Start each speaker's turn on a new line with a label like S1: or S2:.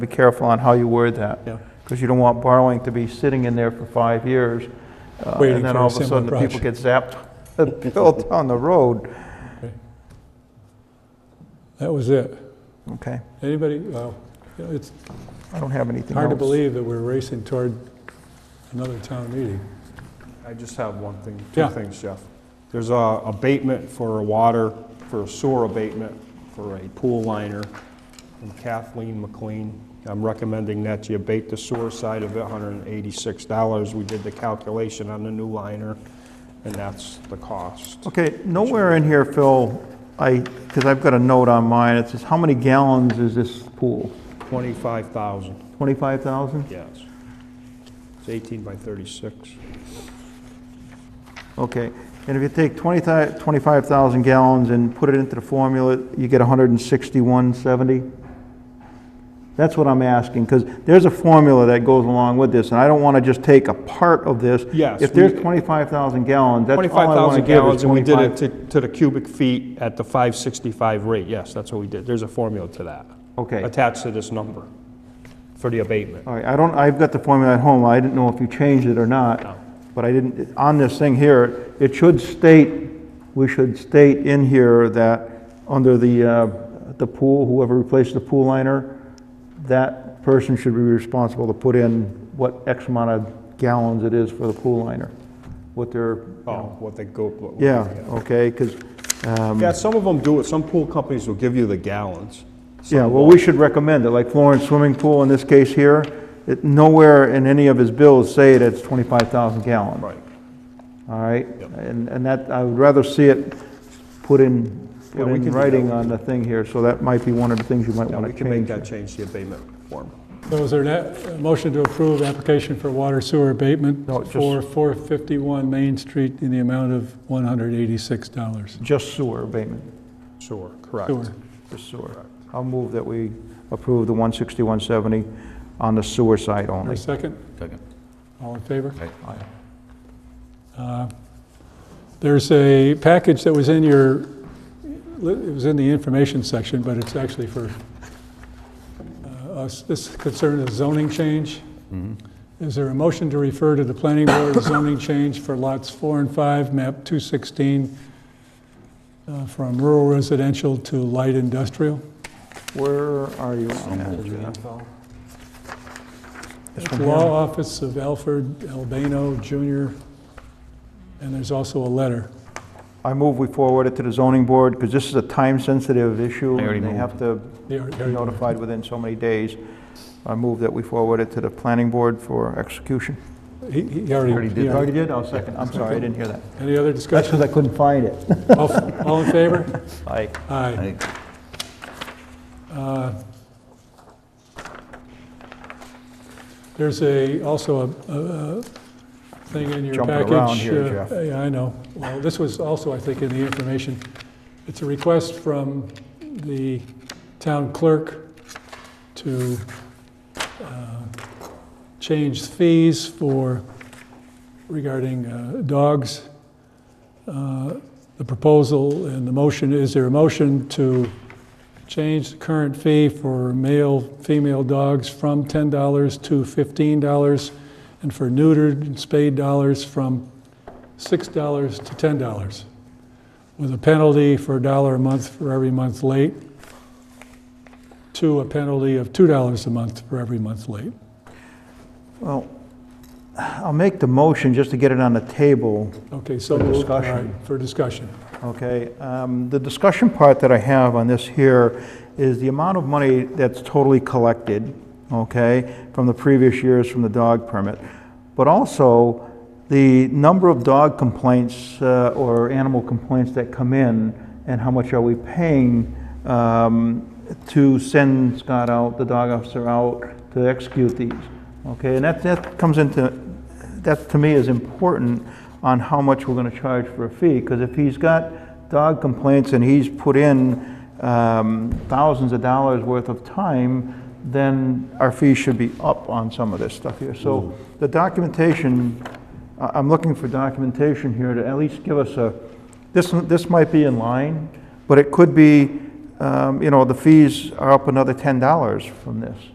S1: Be careful on how you word that.
S2: Yeah.
S1: Because you don't want borrowing to be sitting in there for five years. uh,
S2: Waiting
S1: And then
S2: for a
S1: all of a
S2: similar
S1: sudden, the people get zapped, the bill down the road.
S2: That was it.
S1: Okay,
S2: Anybody, well, you know, it's
S1: I don't have anything else.
S2: hard to believe that we're racing toward another town meeting.
S3: I just have one thing, two
S2: Yeah.
S3: things, Jeff. There's a abatement for a water, for a sewer abatement for a pool liner from Kathleen McLean. I'm recommending that you abate the sewer side of it, $186. We did the calculation on the new liner, and that's the cost.
S1: Okay, nowhere in here, Phil, I, because I've got a note on mine, it says, how many gallons is this pool?
S3: 25,000,
S1: 25,000?
S3: yes. It's 18 by 36.
S1: Okay, and if you take 20 thi- 25,000 gallons and put it into the formula, you get 16170? That's what I'm asking, because there's a formula that goes along with this, and I don't want to just take a part of this.
S3: Yes,
S1: If there's
S3: we-
S1: 25,000 gallons, that's all I want to
S3: 25,000
S1: give is
S3: gallons, and we
S1: 25.
S3: did it to- to the cubic feet at the 565 rate, yes, that's what we did. There's a formula to that.
S1: Okay.
S3: Attached to this number for the abatement.
S1: All right, I don't, I've got the formula at home, I didn't know if you changed it or
S3: No.
S1: not, but I didn't, on this thing here, it should state, we should state in here that, under the, uh, the pool, whoever replaced the pool liner, that person should be responsible to put in what X amount of gallons it is for the pool liner, what their, you
S3: Oh,
S1: know-
S3: what they go. what-
S1: yeah, um, okay, because,
S3: Yeah, some of them do it, some pool companies will give you the gallons. Some
S1: Yeah, well,
S3: won't.
S1: we should recommend it, like Florence Swimming Pool in this case here, it, nowhere in any of his bills say that it's 25,000 gallons.
S3: Right.
S1: All right?
S3: Yep.
S1: And, and that, I would rather see it put in,
S3: Yeah,
S1: put
S3: we can
S1: in
S3: do that.
S1: writing on the thing here, so that might be one of the things you might
S3: Yeah,
S1: want
S3: we
S1: to
S3: can make
S1: change.
S3: that change, the abatement form.
S2: So is there a motion to approve application for water sewer abatement
S1: No, just-
S2: for 451 Main Street in the amount of $186?
S1: Just sewer abatement,
S3: Sure, correct.
S2: Sewer.
S1: just sewer. I'll move that we approve the 16170 on the sewer side
S2: Your
S1: only.
S2: second?
S4: Second.
S2: All in favor?
S1: Aye.
S2: There's a package that was in your, it was in the information section, but it's actually for uh, us, this concern is zoning change. Is there a motion to refer to the planning board zoning change for lots four and five, map 216, uh, from rural residential to light industrial?
S1: Where are you on that? Jeff? This one here?
S2: Law Office of Alfred Albano Jr., and there's also a letter.
S1: I move we forward it to the zoning board, because this is a time-sensitive issue,
S4: I already
S1: and they have to
S2: They are-
S1: be
S2: they're-
S1: notified within so many days. I move that we forward it to the planning board for execution.
S2: He he already, he
S1: You already
S2: already-
S1: did? I'll second. I'm sorry, I didn't hear that.
S2: any other discussion?
S1: I couldn't find it.
S2: All all in favor?
S1: Aye.
S2: Aye. Uh, There's a, also a- a, a thing in your
S1: Jumping
S2: package.
S1: around here,
S2: uh,
S1: Jeff.
S2: Yeah, I know. Well, this was also, I think, in the information. It's a request from the town clerk to uh, change fees for, regarding uh, dogs. Uh, The proposal and the motion, is there a motion to change the current fee for male, female dogs from $10 to $15, and for neutered and spayed dollars from $6 to $10, with a penalty for a dollar a month for every month late, to a penalty of $2 a month for every month late.
S1: Well, I'll make the motion just to get it on the table,
S2: Okay, so.
S1: For
S2: moved. All
S1: discussion.
S2: right, For discussion.
S1: okay? Um, The discussion part that I have on this here is the amount of money that's totally collected, okay, from the previous years from the dog permit, but also the number of dog complaints uh, or animal complaints that come in, and how much are we paying um, to send Scott out, the dog officer out, to execute these, okay? And that, that comes into that to me is important on how much we're gonna charge for a fee, because if he's got dog complaints and he's put in um, thousands of dollars worth of time, then our fee should be up on some of this stuff here. So the documentation, I- I'm looking for documentation here to at least give us a, this, this might be in line, but it could be, um, you know, the fees are up another ten dollars from this.